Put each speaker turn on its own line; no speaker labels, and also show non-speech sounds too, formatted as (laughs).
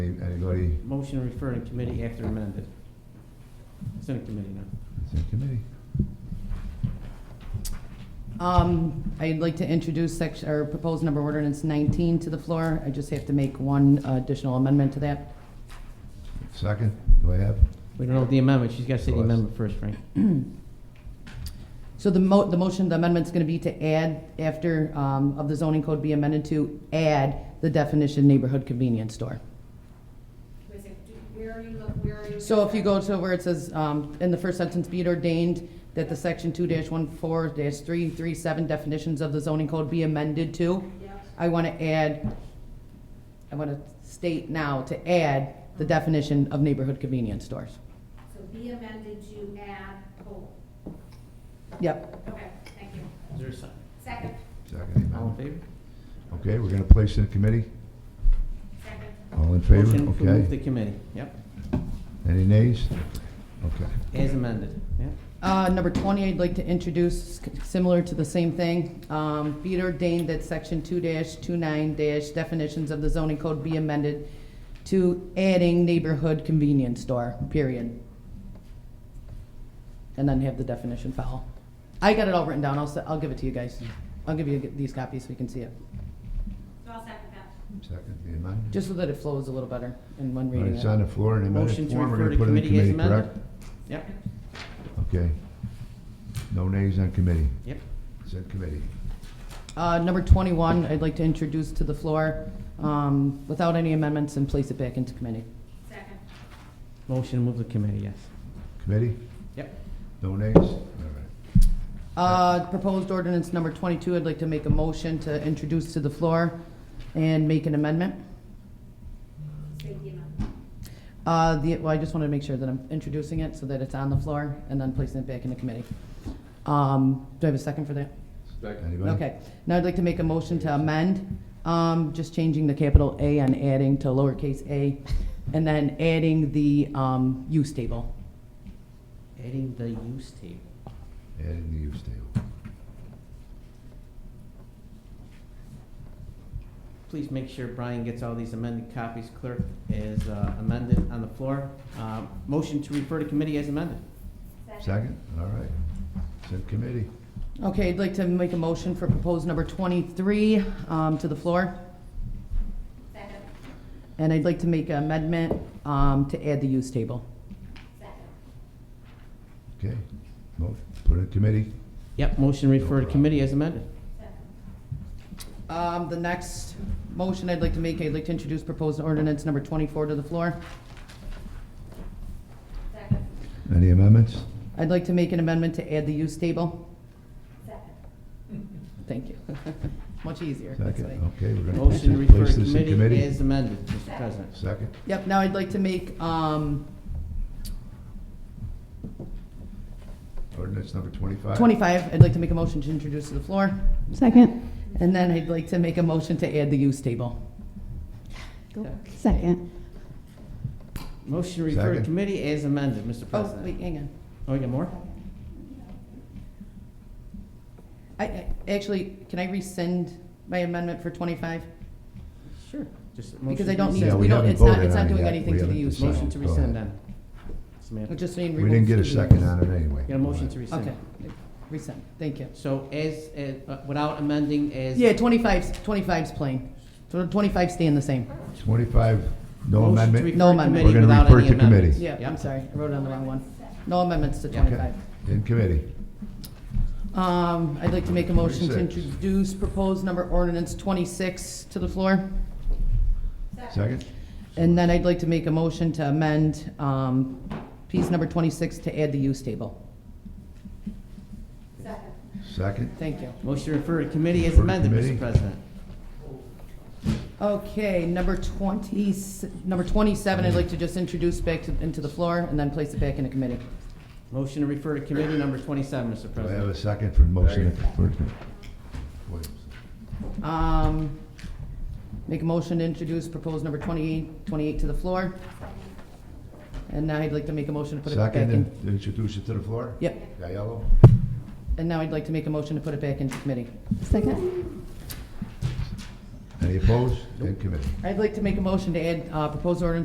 Anybody,
Motion to refer to committee after amended. It's in a committee now.
it's in committee.
Um, I'd like to introduce section, or proposed number ordinance 19 to the floor. I just have to make one additional amendment to that.
Second, do I have?
We don't know the amendment, she's got to say the
Well, that's-
amendment first, Frank.
So the mo, the motion, the amendment's gonna be to add after, um, of the zoning code be amended to add the definition neighborhood convenience store.
Wait a second, do- Where are you, look- where are you?
So if you go to where it says, um, in the first sentence, be it ordained that the section two dash one four dash three three seven definitions of the zoning code be amended to,
Yep.
I want to add, I want to state now to add the definition of neighborhood convenience stores.
So be amended to add whole.
Yep,
Okay, thank you.
Is there a second?
Second,
Second,
All in
amen.
favor?
Okay, we're gonna place it in committee.
second.
All in favor?
Motion to move the
Okay.
committee, yep,
Any nays? Okay.
as amended, yep.
Uh, Number 20, I'd like to introduce, similar to the same thing, um, be it ordained that Section 2-29- definitions of the zoning code be amended to adding neighborhood convenience store, period. And then have the definition follow. I got it all written down, I'll, s- I'll give it to you guys. I'll give you these copies so you can see it,
So I'll second that.
Second, the amendment.
just so that it flows a little better in one
All right,
reading.
It's
it.
on the floor in
Motion
amended
to
form. We're
refer
gonna
to
put it in
committee as
committee,
amended?
correct?
Yep,
Okay. No nays on committee.
yep.
It's in committee.
Uh, Number 21, I'd like to introduce to the floor, um, without any amendments, and place it back into committee.
Second,
Motion to move the committee, yes.
Committee?
Yep.
No nays? All right.
Uh, Proposed ordinance number 22, I'd like to make a motion to introduce to the floor and make an amendment.
say the amendment.
Uh, the- Well, I just want to make sure that I'm introducing it so that it's on the floor and then placing it back in the committee. Um, Do I have a second for that?
Anybody?
Okay. Now I'd like to make a motion to amend, um, just changing the capital A and adding to lowercase a, and then adding the um, use table.
Adding the use table.
Adding the use table.
Please make sure Brian gets all these amended copies, clerk, as uh, amended on the floor. Uh, Motion to refer to committee as amended.
Second, all right. It's in committee.
Okay, I'd like to make a motion for proposed number 23 um, to the floor.
Second,
And I'd like to make an amendment um, to add the use table.
second.
Okay. Mo- Put it in committee.
Yep, motion to refer to
problem.
committee as amended.
Um, The next motion I'd like to make, I'd like to introduce proposed ordinance number 24 to the floor.
Second,
Any amendments?
I'd like to make an amendment to add the use table.
second,
Thank you. (laughs) Much easier. that's
Second,
why.
okay, we're gonna place
Motion
this
to refer
place
to
this in
committee
committee.
as amended, Mr. President.
Second,
Yep, now I'd like to make, um,
ordinance number twenty-five.
25, I'd like to make a motion to introduce to the floor.
Second.
And then I'd like to make a motion to add the use table.
Second.
Motion to refer to
Second.
committee as amended, Mr.
Oh,
President.
wait, hang on.
Oh, we got more?
I- I, actually, can I rescind my amendment for 25?
Sure. Just a
Because
motion
I don't need,
Yeah,
to-
rescind.
we
we don't,
haven't
it's not,
voted
it's
on
not
it
doing
yet.
anything
We
to the
haven't
use.
decided.
Motion to
Go ahead.
rescind then. Samantha.
We're just saying
We didn't
remove
get a
the-
second on it anyway.
Got a motion to rescind.
Okay, rescind, thank you.
So as, as- uh, without amending as.
Yeah, 25's 25's plain. So 25 staying the same.
Twenty-five, no
Motion to
amendment?
refer
No
to
amendment.
committee
We're gonna
without
refer
any
to committee.
amendments.
Yeah, I'm
Yep.
sorry, I wrote it on the wrong one. No amendments to
Yeah.
Okay,
25.
in committee.
Um, I'd like to make a motion to
26.
introduce proposed number ordinance 26 to the floor.
Second?
And then I'd like to make a motion to amend um, piece number 26 to add the use table.
second.
Second?
Thank you.
Motion to refer to committee as
Refer to
amended, Mr.
committee.
President.
Okay, number 20, number 27, I'd like to just introduce back to- into the floor and then place it back in a committee.
Motion to refer to committee number twenty-seven, Mr.
Do I have a
President.
second for motion? for- Wait.
Um, Make a motion to introduce proposed number 28, 28 to the floor. And now I'd like to make a motion to put it back
Second,
in.
and introduce it to the floor?
Yep,
Aiello?
and now I'd like to make a motion to put it back into committee.
Second.
Any opposed? Ed committee.
I'd like to make a motion to add, uh, proposed ordinance